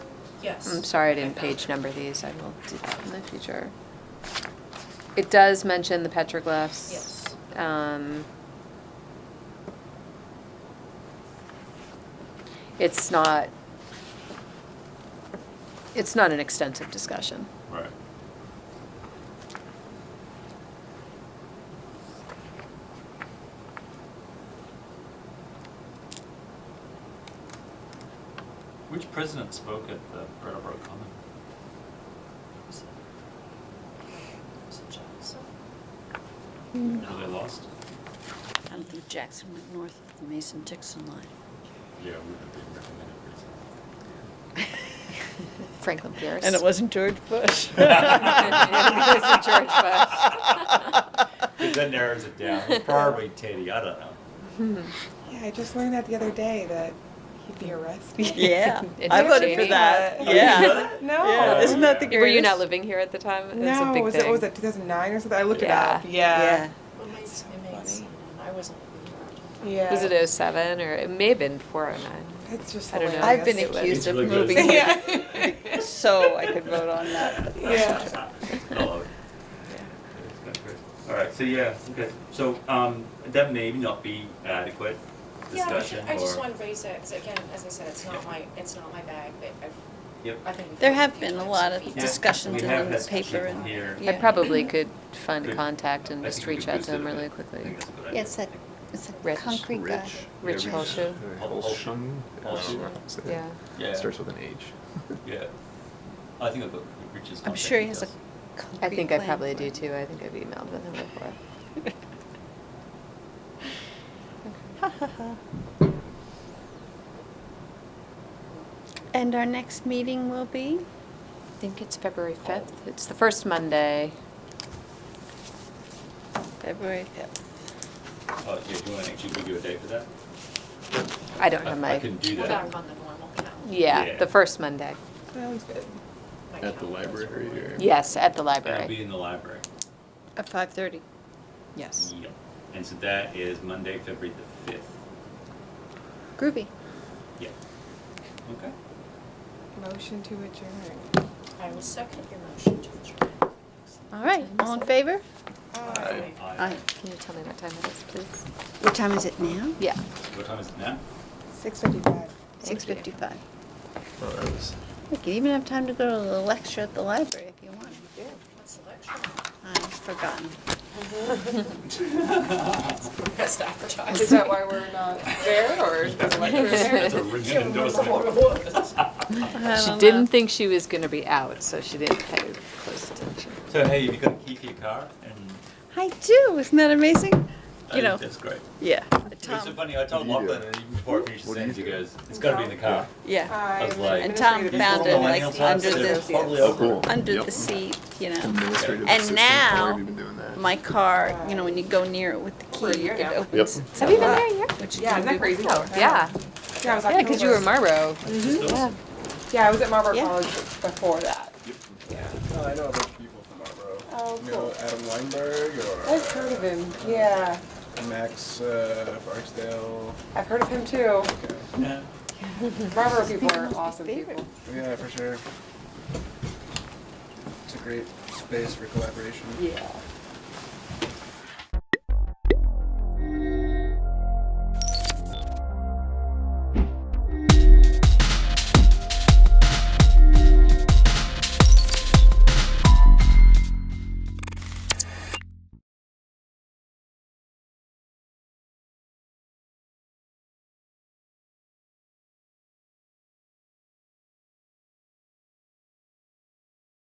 Yes. I'm sorry I didn't found page it. number these, I will do that in the future. It does mention the petroglyphs. Yes. Um, It's not, it's not an extensive discussion. Right. Which president spoke at the Brattleboro Common? Was it- was it Jackson? No, they lost? I don't think Jackson went north of the Mason-Dixon line. Yeah, we would be recommended recently. Franklin Pierce. And it wasn't George Bush. wasn't George Bush. Because that narrows it down. It's Probably Teddy, I don't know. Yeah, I just learned that the other day that he'd be arrested. Yeah, It I did, voted for Jamie. that, Uh, yeah. No. Yeah, isn't that the greatest? Were you not living here at the time? It was a No, big was thing. it, was it 2009 or something? I looked Yeah. it up. Yeah. Well, my- That's so my mate's funny. seen it. I wasn't. Yeah. Was it 07 or it may have been 409? It's just I don't know. hilarious. I've been Yes, it was. accused of It's really good. moving here, Yeah. so I could vote on that. yeah. I love it. It's kind of crazy. All right, so yeah, okay, so, um, that may not be adequate Yeah, I ju- discussion I just or- wanted to raise that, because again, as I said, it's not my, it's not my bag, but I've, Yep. I think. we've There heard have few been a times lot from of people. discuss- discussions We in have the had some paper people and- here. yeah. I probably could find Good. contact and I just think we reach could out to them boost it a really bit. I quickly. think that's a good idea. Yes, that, it's a Rich. concrete guy. Rich. Rich Yeah, Holshu, Holshu. Holshu. yeah. Yeah. Starts with an H. Yeah, I think I've got Rich's contact. I'm sure he has a details. concrete I think I plan probably for do it. too, I think I've emailed with him before. And our next meeting will be? I think it's February 5th, it's the first Monday. February fifth. Oh, yeah, do you wanna actually give you a date for that? I don't have I my, can do We're that. back on the normal count. yeah, Yeah. the first Monday. Sounds good. My At the count. library or? Yes, at the That'll be library, in the library. At five thirty. yes. Yep. And so that is Monday, February the fifth. Groovy. Yep. Okay. Motion to adjourn. I will second your motion to adjourn. All right, all in favor? Aye. Aye. Can you tell me what time it is, please? What time is it now? Yeah. What time is it now? 655. Six fifty-five. Well, Oh, that was. You can even have time to go to the lecture at the library if you want. What's the lecture? I've forgotten. Best advertised. Is that why we're not there or is it like we're there? That's a rigid endorsement. She didn't think she was gonna be out, so she didn't pay close attention. So hey, have you got a key for your car? And I do, isn't that amazing? I You think know, that's great. Yeah, It was so Tom, funny. I told What do you Lachlan, do? and even before I finished the What do you sentence, he do? goes, "It's got to be in the car." yeah. I'm was like- an And Tom administrative found assistant. it, like, under the- Totally Oh, over. cool. it. under Yep. the seat, you know. Administrative And assistant. How now, long have you been doing that? My car, you know, when you go near it with the We're key, here it now. opens. Yep. Have you been there yet? Yeah, isn't that crazy? Oh, yeah, Yeah, I was yeah, because you were October. Marlboro. Mm-hmm. It's awesome. Yeah. Yeah, I was at Marlboro Yeah. College before that. No, I know a bunch of people from Marlboro. Oh, You cool. know Adam Weinberg or I've heard of him. Yeah, Max uh, Barksdale. I've heard of him too. Yeah. Marlboro people are awesome people. Yeah, for sure. It's a great space for collaboration. Yeah.